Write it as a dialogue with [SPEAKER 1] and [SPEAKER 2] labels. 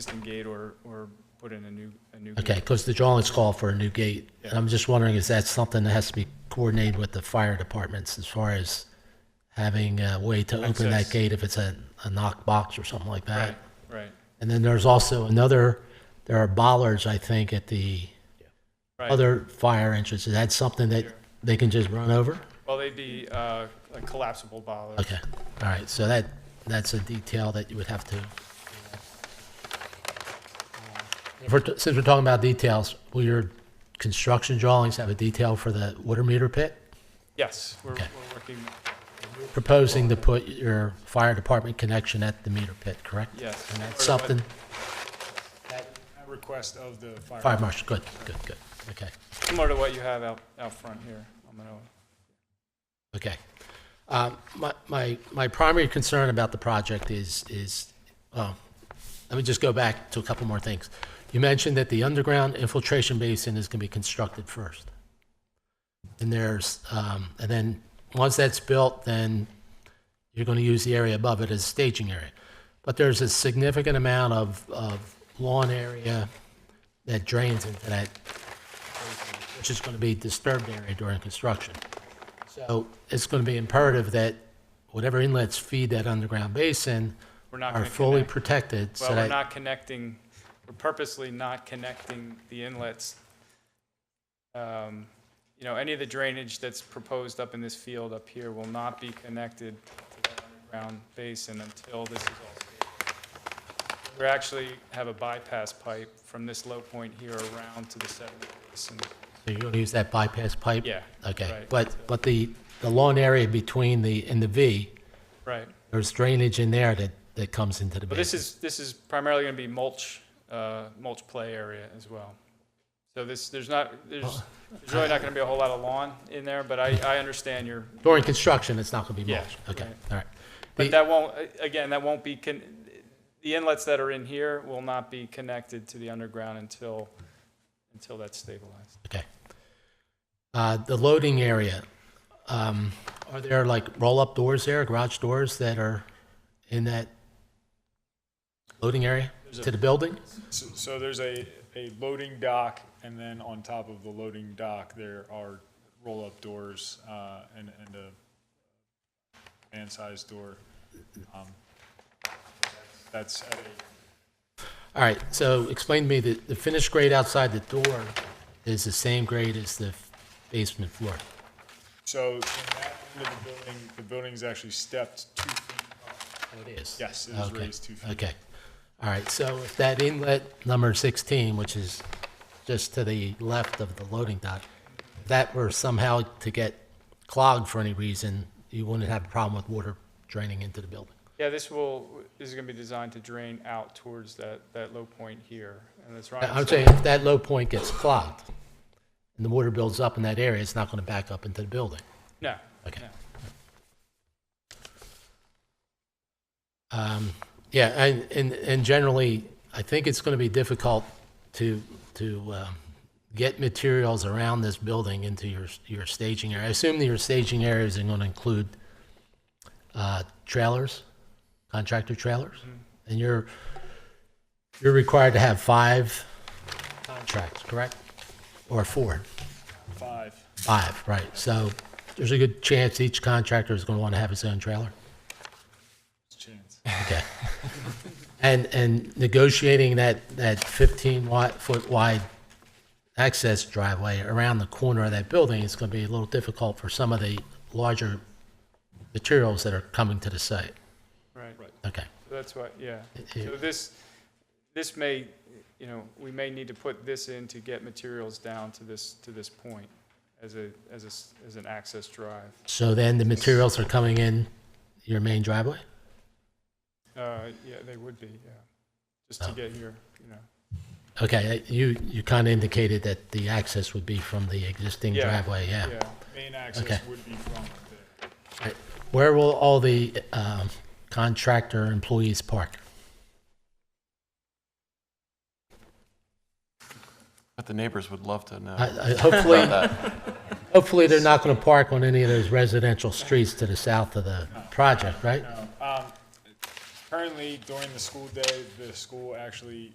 [SPEAKER 1] existing gate or, or put in a new, a new gate.
[SPEAKER 2] Okay, because the drawings call for a new gate. And I'm just wondering, is that something that has to be coordinated with the fire departments as far as having a way to open that
[SPEAKER 1] Access.
[SPEAKER 2] gate if it's a, a knock box or something like
[SPEAKER 1] Right,
[SPEAKER 2] that?
[SPEAKER 1] right,
[SPEAKER 2] And then there's also another, there are bollards, I think, at the
[SPEAKER 1] right.
[SPEAKER 2] other fire entrance. Is that something that they can just run over?
[SPEAKER 1] Well, they'd be uh, like collapsible bollards.
[SPEAKER 2] Okay, all right, so that, that's a detail that you would have to. If we're- Since we're talking about details, will your construction drawings have a detail for the water meter pit?
[SPEAKER 1] Yes, we're,
[SPEAKER 2] Okay.
[SPEAKER 1] we're working,
[SPEAKER 2] Proposing to put your fire department connection at the meter pit, correct?
[SPEAKER 1] yes.
[SPEAKER 2] And that's
[SPEAKER 1] Or what-
[SPEAKER 2] something,
[SPEAKER 1] at Request of the fire.
[SPEAKER 2] fire marshal, good, good, good, okay.
[SPEAKER 1] Similar to what you have out, out front here on Manoa.
[SPEAKER 2] Okay. Um, My, my, my primary concern about the project is, is, um, well, let me just go back to a couple more things. You mentioned that the underground infiltration basin is going to be constructed first. And there's, um, and then, once that's built, then you're going to use the area above it as staging area. But there's a significant amount of, of lawn area that drains into that, which is going to be disturbed area during construction. So it's going to be imperative that whatever inlets feed that underground basin
[SPEAKER 1] We're not
[SPEAKER 2] are
[SPEAKER 1] going to
[SPEAKER 2] fully
[SPEAKER 1] connect.
[SPEAKER 2] protected. so
[SPEAKER 1] Well, we're
[SPEAKER 2] that-
[SPEAKER 1] not connecting, we're purposely not connecting the inlets. Um, You know, any of the drainage that's proposed up in this field up here will not be connected to that underground basin until this is all stabilized. We actually have a bypass pipe from this low point here around to the sediment basin.
[SPEAKER 2] So you're going to use that bypass pipe?
[SPEAKER 1] Yeah,
[SPEAKER 2] Okay,
[SPEAKER 1] right.
[SPEAKER 2] but, but the, the lawn area between the, and the V,
[SPEAKER 1] Right.
[SPEAKER 2] there's drainage in there that, that comes into the
[SPEAKER 1] But this
[SPEAKER 2] basin.
[SPEAKER 1] is, this is primarily going to be mulch, uh, mulch play area as well. So this, there's not, there's there's really not going to be a whole lot of lawn in there, but I, I understand your,
[SPEAKER 2] During construction, it's not going to be
[SPEAKER 1] Yeah,
[SPEAKER 2] mulch? Okay,
[SPEAKER 1] right.
[SPEAKER 2] all right. The-
[SPEAKER 1] but that won't, again, that won't be, con- the inlets that are in here will not be connected to the underground until, until that's stabilized.
[SPEAKER 2] Okay. Uh, The loading area, um, are there like roll-up doors there, garage doors that are in that loading area to the building?
[SPEAKER 3] So, so there's a, a loading dock, and then on top of the loading dock, there are roll-up doors, uh, and, and a man-sized door. Um, That's at a,
[SPEAKER 2] All right, so explain to me that the finished grade outside the door is the same grade as the basement floor.
[SPEAKER 3] so in that end of the building, the building's actually stepped two feet.
[SPEAKER 2] Oh, it is?
[SPEAKER 3] Yes, it is
[SPEAKER 2] Okay,
[SPEAKER 3] raised two feet.
[SPEAKER 2] Okay, all right, so if that inlet number 16, which is just to the left of the loading dock, if that were somehow to get clogged for any reason, you wouldn't have a problem with water draining into the building.
[SPEAKER 1] Yeah, this will, this is going to be designed to drain out towards that, that low point here. And that's right.
[SPEAKER 2] I'm saying if that low point gets clogged and the water builds up in that area, it's not going to back up into the building.
[SPEAKER 1] No.
[SPEAKER 2] Okay.
[SPEAKER 1] no.
[SPEAKER 2] Um, Yeah, and, and, and generally, I think it's going to be difficult to, to um, get materials around this building into your, your staging area. I assume that your staging areas are going to include uh, trailers, contractor trailers? And you're, you're required to have five contracts, correct? Or four?
[SPEAKER 3] Five,
[SPEAKER 2] Five, right. So there's a good chance each contractor is going to want to have his own trailer?
[SPEAKER 3] chance.
[SPEAKER 2] Okay. And, and negotiating that, that 15 wide, foot wide access driveway around the corner of that building is going to be a little difficult for some of the larger materials that are coming to the site.
[SPEAKER 1] Right.
[SPEAKER 2] Okay.
[SPEAKER 1] That's what, yeah.
[SPEAKER 2] Yeah.
[SPEAKER 1] So this, this may, you know, we may need to put this in to get materials down to this, to this point as a, as a, s- as an access drive.
[SPEAKER 2] So then the materials are coming in your main driveway?
[SPEAKER 1] Uh, yeah, they would be, yeah, just to
[SPEAKER 2] Oh.
[SPEAKER 1] get here, you know.
[SPEAKER 2] Okay, uh, you, you kind of indicated that the access would be from the existing
[SPEAKER 1] Yeah,
[SPEAKER 2] driveway, yeah.
[SPEAKER 1] Yeah,
[SPEAKER 2] Okay.
[SPEAKER 3] Main access would be from there.
[SPEAKER 2] Where will all the um, contractor employees park?
[SPEAKER 4] But the neighbors would love to know
[SPEAKER 2] I-
[SPEAKER 4] about
[SPEAKER 2] I- Hopefully,
[SPEAKER 4] that.
[SPEAKER 2] Hopefully, they're not going to park on any of those residential streets to the south of the project, right?
[SPEAKER 3] No, um, Currently, during the school day, the school actually